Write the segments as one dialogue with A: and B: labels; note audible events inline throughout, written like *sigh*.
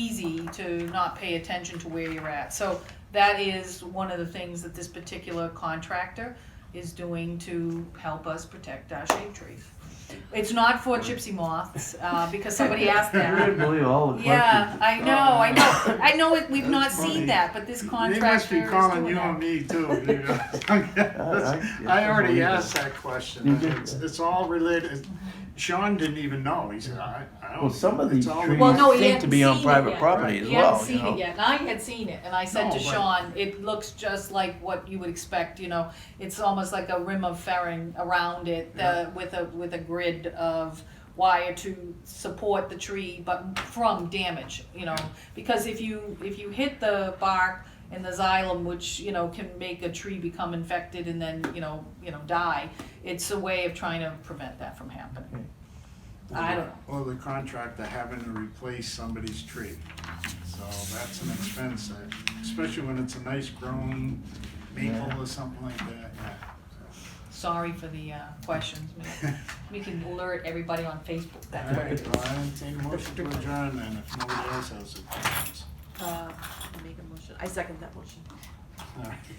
A: easy to not pay attention to where you're at. So that is one of the things that this particular contractor is doing to help us protect our shade trees. It's not for gypsy moths, uh, because somebody asked
B: *laughs*
C: You
A: that.
C: didn't believe all the
A: Yeah, I know, I know, I know it- we've not
C: That's funny.
A: seen that, but this
B: They
A: contractor is
B: must be
A: doing
B: calling you
A: that.
B: on me too. you know. *laughs*
C: I- I-
B: I already
C: I-
B: asked that question.
C: You did.
B: It's, it's all related. Sean didn't even know. He said, I, I don't.
C: Well, some of
B: it's
C: these
B: all
C: trees
A: Well, no, he
C: seem to
A: hadn't
C: be on
A: seen it
C: private
A: yet.
C: property as
A: He hadn't
C: well, you
A: seen it
C: know.
A: yet, and I had seen it, and I said
B: No,
A: to
B: but-
A: Sean, it looks just like what you would expect, you know, it's almost like a rim of fairing around it,
B: Yeah.
A: the, with a, with a grid of wire to support the tree, but from damage, you know, because if you, if you hit the bark and the xylem, which, you know, can make a tree become infected and then, you know, you know, die, it's a way of trying to prevent that from happening. I don't know.
B: Or the contractor having to replace somebody's tree. So that's an expense, that- especially when it's a nice grown maple or something like that.
A: Sorry for the uh, questions.
C: *laughs*
A: man.
B: *laughs*
A: We can alert everybody on Facebook
B: All
A: that way.
B: right, well, I entertain a motion to adjourn then, if nobody else has a question.
D: Uh, I make a motion, I second that motion.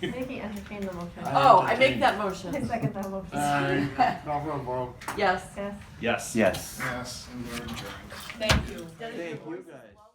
E: Maybe entertain the motion.
B: I
D: Oh, I
B: entertain.
D: make that
E: I
D: motion,
E: second that motion.
B: Uh,
D: *laughs*
B: call for a vote,
D: yes.
C: Yes.
E: Yes.
B: yes, and we're adjourned.
A: Thank you.
C: Thank you, guys.